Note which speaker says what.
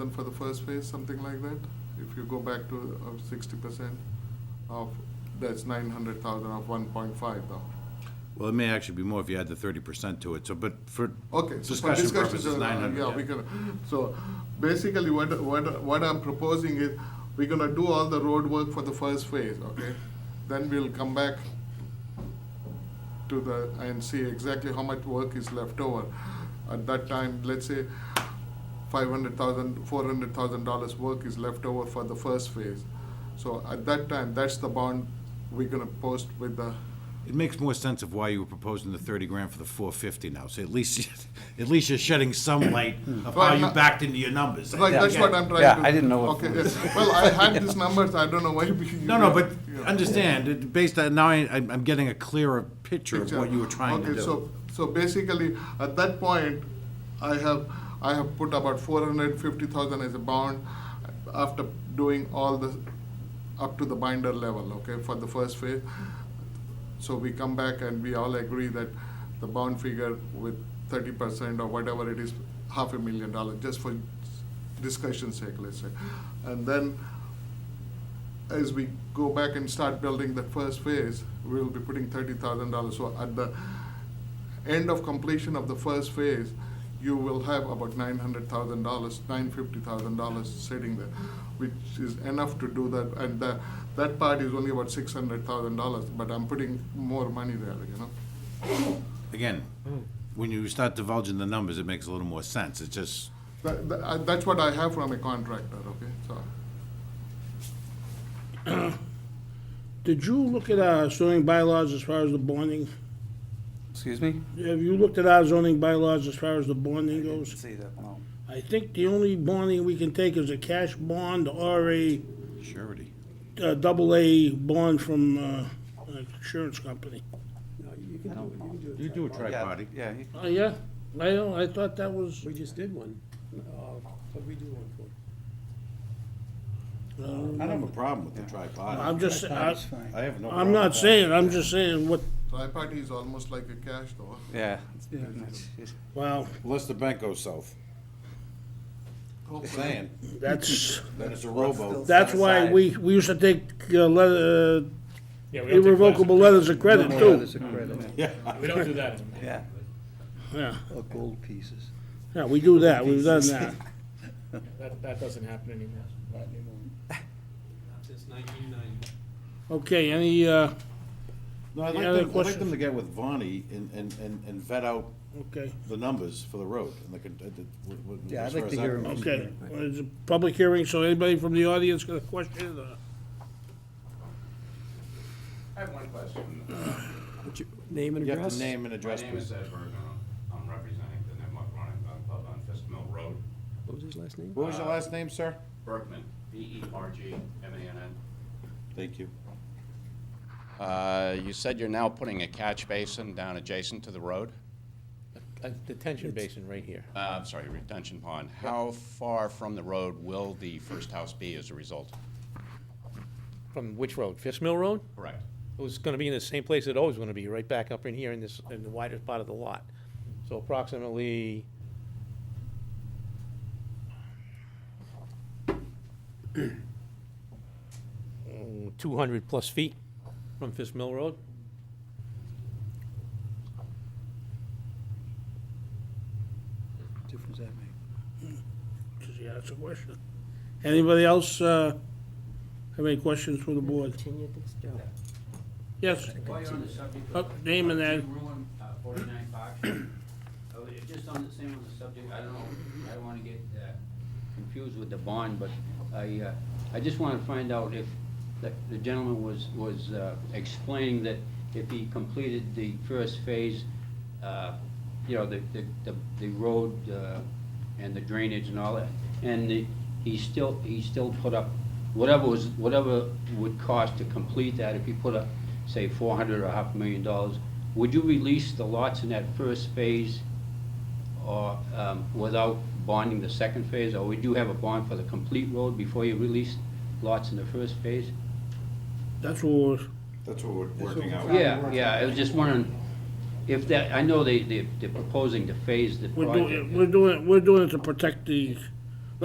Speaker 1: Then for the first phase, something like that, if you go back to uh, sixty percent of, that's nine hundred thousand of one point five though.
Speaker 2: Well, it may actually be more if you add the thirty percent to it, so, but for
Speaker 1: Okay, so for
Speaker 2: discussion
Speaker 1: discussions,
Speaker 2: purposes,
Speaker 1: uh,
Speaker 2: nine hundred.
Speaker 1: yeah, we can, so basically what, what, what I'm proposing is, we're gonna do all the road work for the first phase, okay? Then we'll come back to the, and see exactly how much work is left over. At that time, let's say five hundred thousand, four hundred thousand dollars work is left over for the first phase. So at that time, that's the bond we're gonna post with the,
Speaker 2: It makes more sense of why you were proposing the thirty grand for the four fifty now, so at least, at least you're shedding some light of how
Speaker 1: Right,
Speaker 2: you
Speaker 1: no-
Speaker 2: backed into your numbers.
Speaker 1: right, that's what I'm trying
Speaker 3: Yeah,
Speaker 1: to.
Speaker 3: I didn't know what-
Speaker 1: Okay, yes. well, I had these numbers, I don't know why. we-
Speaker 2: No, no, but
Speaker 1: Yeah.
Speaker 2: understand, it- based on, now I, I'm I'm getting a clearer picture of
Speaker 1: picture.
Speaker 2: what you were trying to
Speaker 1: Okay, so,
Speaker 2: do.
Speaker 1: so basically, at that point, I have, I have put about four hundred fifty thousand as a bond after doing all the, up to the binder level, okay, for the first phase. So we come back and we all agree that the bond figure with thirty percent or whatever it is, half a million dollar, just for discussion sake, let's say. And then as we go back and start building the first phase, we'll be putting thirty thousand dollars. So at the end of completion of the first phase, you will have about nine hundred thousand dollars, nine fifty thousand dollars sitting there, which is enough to do that. And that, that part is only about six hundred thousand dollars, but I'm putting more money there, you know?
Speaker 2: Again, when you start divulging the numbers, it makes a little more sense, it's just,
Speaker 1: That, that, I- that's what I have from a contractor, okay, so.
Speaker 4: Did you look at our zoning bylaws as far as the bonding?
Speaker 3: Excuse me?
Speaker 4: Have you looked at our zoning bylaws as far as the bonding goes?
Speaker 3: See that, no.
Speaker 4: I think the only bonding we can take is a cash bond or a
Speaker 2: surety.
Speaker 4: uh, double A bond from uh, an insurance company.
Speaker 3: I don't know.
Speaker 2: You do a
Speaker 3: Yeah,
Speaker 2: tri-party.
Speaker 3: Yeah, he-
Speaker 4: Oh, yeah? I don't, I thought that was,
Speaker 5: We just did one. What we do one for?
Speaker 4: I
Speaker 2: I
Speaker 4: don't
Speaker 2: don't have a
Speaker 4: remember.
Speaker 2: problem with the tri-party.
Speaker 4: Um, I'm just, I-
Speaker 2: I have no.
Speaker 4: I'm
Speaker 2: problem
Speaker 4: not
Speaker 2: with that.
Speaker 4: saying, I'm just saying what,
Speaker 1: Tri-party is almost like a cash though.
Speaker 3: yeah. it's pretty much it.
Speaker 4: wow,
Speaker 2: Unless the bank goes south, saying,
Speaker 4: that's,
Speaker 2: then it's a rowboat.
Speaker 4: that's why we, we used to take uh, letter, uh, irrevocable letters of credit too. Mm.
Speaker 6: There's a credit,
Speaker 2: Yeah.
Speaker 5: We don't do that.
Speaker 3: Yeah,
Speaker 4: Yeah,
Speaker 6: or gold pieces.
Speaker 4: yeah, we do that, we've done that.
Speaker 5: That, that doesn't happen anymore.
Speaker 4: Okay, any, uh,
Speaker 2: No, I'd
Speaker 4: Any
Speaker 2: like them, I'd
Speaker 4: other
Speaker 2: like them
Speaker 4: questions?
Speaker 2: to get with Vonnie and, and, and and vet out
Speaker 4: okay,
Speaker 2: the numbers for the road and the, con- uh, the- what- what-
Speaker 6: Yeah, I'd
Speaker 2: as far
Speaker 6: like
Speaker 2: as
Speaker 6: to
Speaker 2: that
Speaker 6: hear 'em.
Speaker 2: goes.
Speaker 4: okay. Well, It's a public hearing, so anybody from the audience got a question? or-
Speaker 7: I have one question.
Speaker 5: Name and
Speaker 2: You have
Speaker 5: address?
Speaker 2: to name and
Speaker 7: My
Speaker 2: address,
Speaker 7: name is
Speaker 2: please.
Speaker 7: Ed Bergen. I'm representing the Nipmuc Running Gun Club on Fisk Mill Road.
Speaker 5: What was his last name?
Speaker 2: What was
Speaker 7: uh,
Speaker 2: your last name, sir?
Speaker 7: Bergman, E B-E-R-G-M-A-N-N.
Speaker 2: Thank you.
Speaker 7: Uh, you said you're now putting a catch basin down adjacent to the road?
Speaker 8: A detention Uh, basin right here.
Speaker 7: Uh, I'm sorry, retention pond. How far from the road will the first house be as a result?
Speaker 8: From which road? Fish Mill Road?
Speaker 7: Correct.
Speaker 8: It was gonna be in the same place it always gonna be, right back up in here in this, in the widest part of the lot. So approximately two hundred plus feet from Fish Mill Road.
Speaker 6: Difference that make?
Speaker 4: Does he ask a question? Anybody else, uh, have any questions for the board? Yes,
Speaker 9: While you're on the subject
Speaker 4: Oh,
Speaker 9: of.
Speaker 4: name and
Speaker 9: Archie
Speaker 4: ad-
Speaker 9: Ruin, uh, forty-nine Fox. Oh, it- Just on the same on the subject, I don't know, I don't wanna get, uh, confused with the bond, but I, uh, I just wanna find out if the the gentleman was, was, uh, explaining that if he completed the first phase, uh, you know, the, the, the, the road, uh, and the drainage and all that, and the, he still, he still put up whatever was, whatever would cost to complete that, if you put up, say, four hundred or half a million dollars, would you release the lots in that first phase or, um, without bonding the second phase, or would you have a bond for the complete road before you release lots in the first phase?
Speaker 4: that's what was,
Speaker 2: That's what we're working out.
Speaker 9: Yeah, yeah, I was just wondering if that, I know they, they- they're proposing to phase the
Speaker 4: we're
Speaker 9: project.
Speaker 4: doing, we're doing, we're doing it to protect the